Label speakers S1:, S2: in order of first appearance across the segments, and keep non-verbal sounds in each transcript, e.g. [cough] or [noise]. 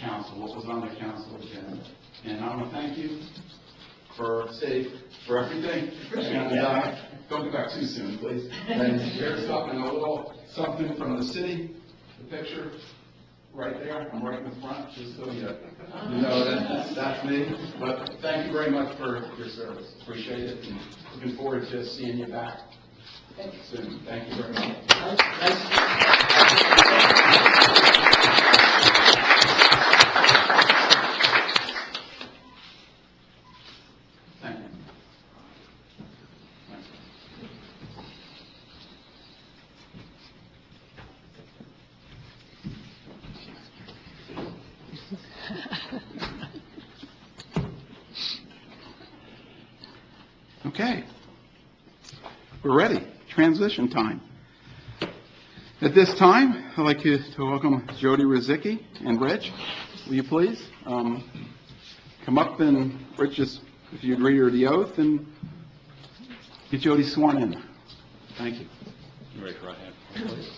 S1: council, what was on the council agenda. And I want to thank you for, say, for everything. And, uh, don't go back too soon, please. And here's something, a little, something from the city, the picture, right there, I'm right in the front, just so you, you know that, that's me. But thank you very much for your service, appreciate it, and looking forward to seeing you back soon. Thank you very much. Thank you. Okay. We're ready. Transition time. At this time, I'd like you to welcome Jody Rozicki and Rich. Will you please um, come up and, Rich, just if you'd read her the oath and get Jody sworn in. Thank you.
S2: Raise your right hand, please.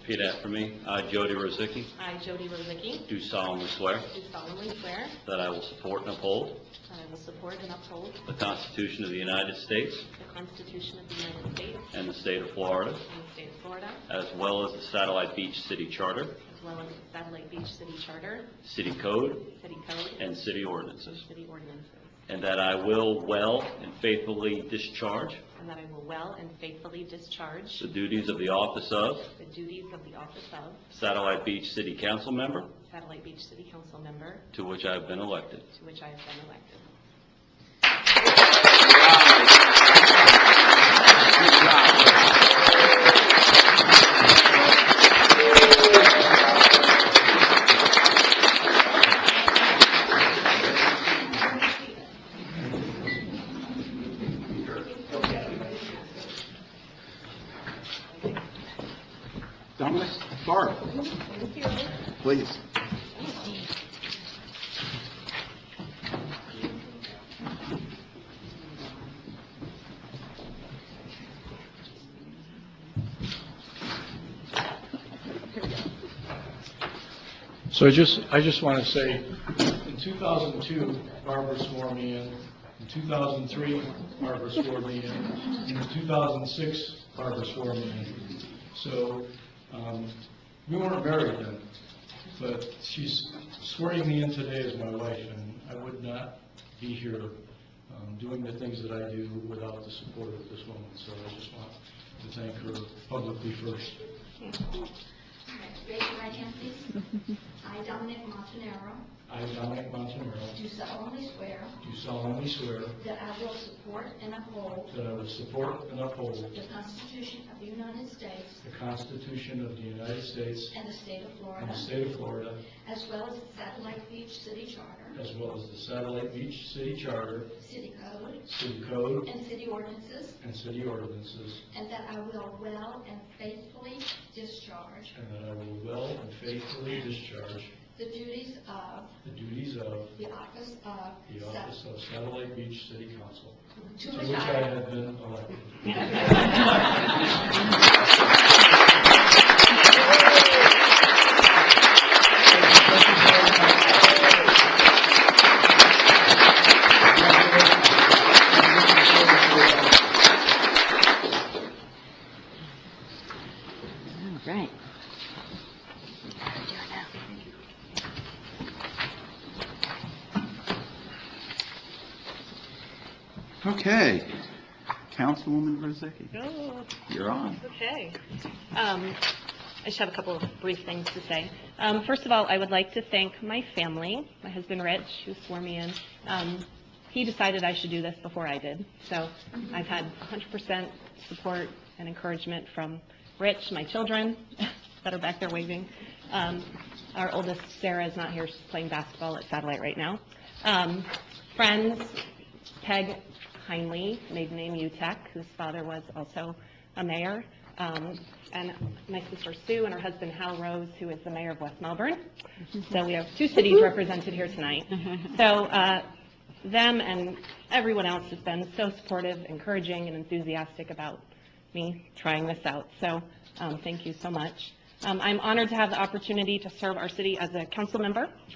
S2: Repeat after me. I, Jody Rozicki,
S3: I, Jody Rozicki,
S2: do solemnly swear
S3: do solemnly swear
S2: that I will support and uphold
S3: that I will support and uphold
S2: the Constitution of the United States
S3: the Constitution of the United States
S2: and the state of Florida,
S3: and the state of Florida,
S2: as well as the Satellite Beach City Charter,
S3: as well as the Satellite Beach City Charter,
S2: City Code,
S3: City Code,
S2: and city ordinances,
S3: city ordinances,
S2: and that I will well and faithfully discharge
S3: and that I will well and faithfully discharge
S2: the duties of the office of
S3: the duties of the office of
S2: Satellite Beach City Council Member,
S3: Satellite Beach City Council Member,
S2: to which I have been elected.
S3: to which I have been elected.
S1: Dominic, start. Please.
S4: So I just, I just want to say, in 2002, Barbara swore me in. In 2003, Barbara swore me in. And in 2006, Barbara swore me in. So um, we weren't married then, but she's swearing me in today as my wife, and I would not be here um, doing the things that I do without the support of this woman. So I just want to thank her publicly first.
S5: Raise your right hand, please. I, Dominic Montanaro,
S4: I, Dominic Montanaro,
S5: do solemnly swear
S4: do solemnly swear
S5: that I will support and uphold
S4: That I will support and uphold
S5: the Constitution of the United States
S4: the Constitution of the United States
S5: and the state of
S4: and
S5: Florida,
S4: the state of Florida,
S5: as well as the Satellite Beach City Charter,
S4: as well as the Satellite Beach City Charter,
S5: City Code,
S4: City Code,
S5: and city ordinances,
S4: and city ordinances,
S5: and that I will well and faithfully discharge
S4: and that I will well and faithfully discharge
S5: the duties of
S4: the duties of
S5: the office of
S4: the
S5: Sat-
S4: office of Satellite Beach City Council,
S5: to
S4: to
S5: which
S4: which I
S5: I
S4: have been elected.
S6: All right.
S1: Okay. Councilwoman Rozicki,
S3: Good.
S1: you're on.
S3: Okay. Um, I just have a couple of brief things to say. Um, First of all, I would like to thank my family, my husband Rich, who swore me in. Um, He decided I should do this before I did, so I've had 100% support and encouragement from Rich, my children [laughs] that are back there waving. Um, Our oldest, Sarah, is not here, she's playing basketball at Satellite right now. Um, Friends, Peg Heinley, maiden name Utek, whose father was also a mayor, um, and my sister Sue and her husband Hal Rose, who is the mayor of West Melbourne. So we have two cities represented here tonight. So uh, them and everyone else has been so supportive, encouraging, and enthusiastic about me trying this out. So um, thank you so much. Um, I'm honored to have the opportunity to serve our city as a council member.